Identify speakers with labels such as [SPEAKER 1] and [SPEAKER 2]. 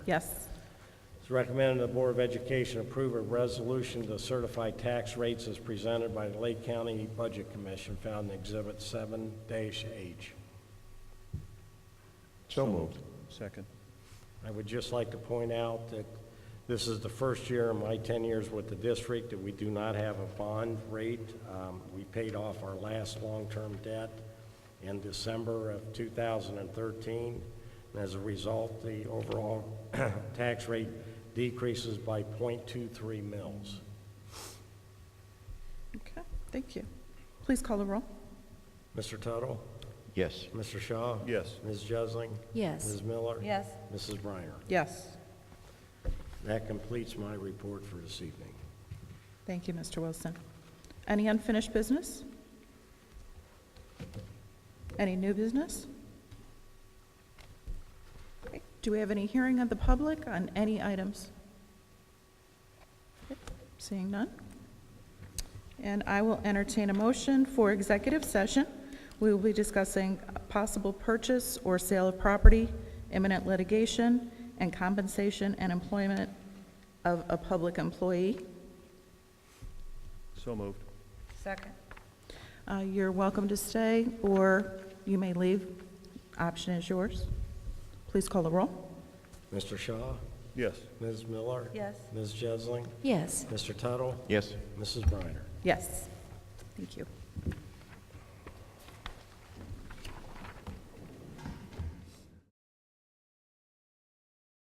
[SPEAKER 1] Yes.
[SPEAKER 2] It's recommended the Board of Education approve a resolution to certify tax rates as presented by the Lake County Budget Commission found in Exhibit 7-H.
[SPEAKER 3] So moved.
[SPEAKER 4] Second.
[SPEAKER 2] I would just like to point out that this is the first year in my 10 years with the district that we do not have a bond rate. Um, We paid off our last long-term debt in December of 2013. And as a result, the overall tax rate decreases by .23 mils.
[SPEAKER 1] Okay, thank you. Please call the roll.
[SPEAKER 2] Mr. Tuttle?
[SPEAKER 3] Yes.
[SPEAKER 2] Mr. Shaw?
[SPEAKER 4] Yes.
[SPEAKER 2] Ms. Jesling?
[SPEAKER 5] Yes.
[SPEAKER 2] Ms. Miller?
[SPEAKER 5] Yes.
[SPEAKER 2] Mrs. Briner?
[SPEAKER 1] Yes.
[SPEAKER 2] That completes my report for this evening.
[SPEAKER 1] Thank you, Mr. Wilson. Any unfinished business? Any new business? Okay, Do we have any hearing of the public on any items? Okay, Seeing none? And I will entertain a motion for executive session. We will be discussing possible purchase or sale of property, imminent litigation, and compensation and employment of a public employee.
[SPEAKER 4] So moved.
[SPEAKER 5] Second.
[SPEAKER 1] Uh, You're welcome to stay, or you may leave. Option is yours. Please call the roll.
[SPEAKER 2] Mr. Shaw?
[SPEAKER 4] Yes.
[SPEAKER 2] Ms. Miller?
[SPEAKER 5] Yes.
[SPEAKER 2] Ms. Jesling?
[SPEAKER 5] Yes.
[SPEAKER 2] Mr. Tuttle?
[SPEAKER 3] Yes.
[SPEAKER 2] Mrs. Briner?
[SPEAKER 1] Yes. Thank you.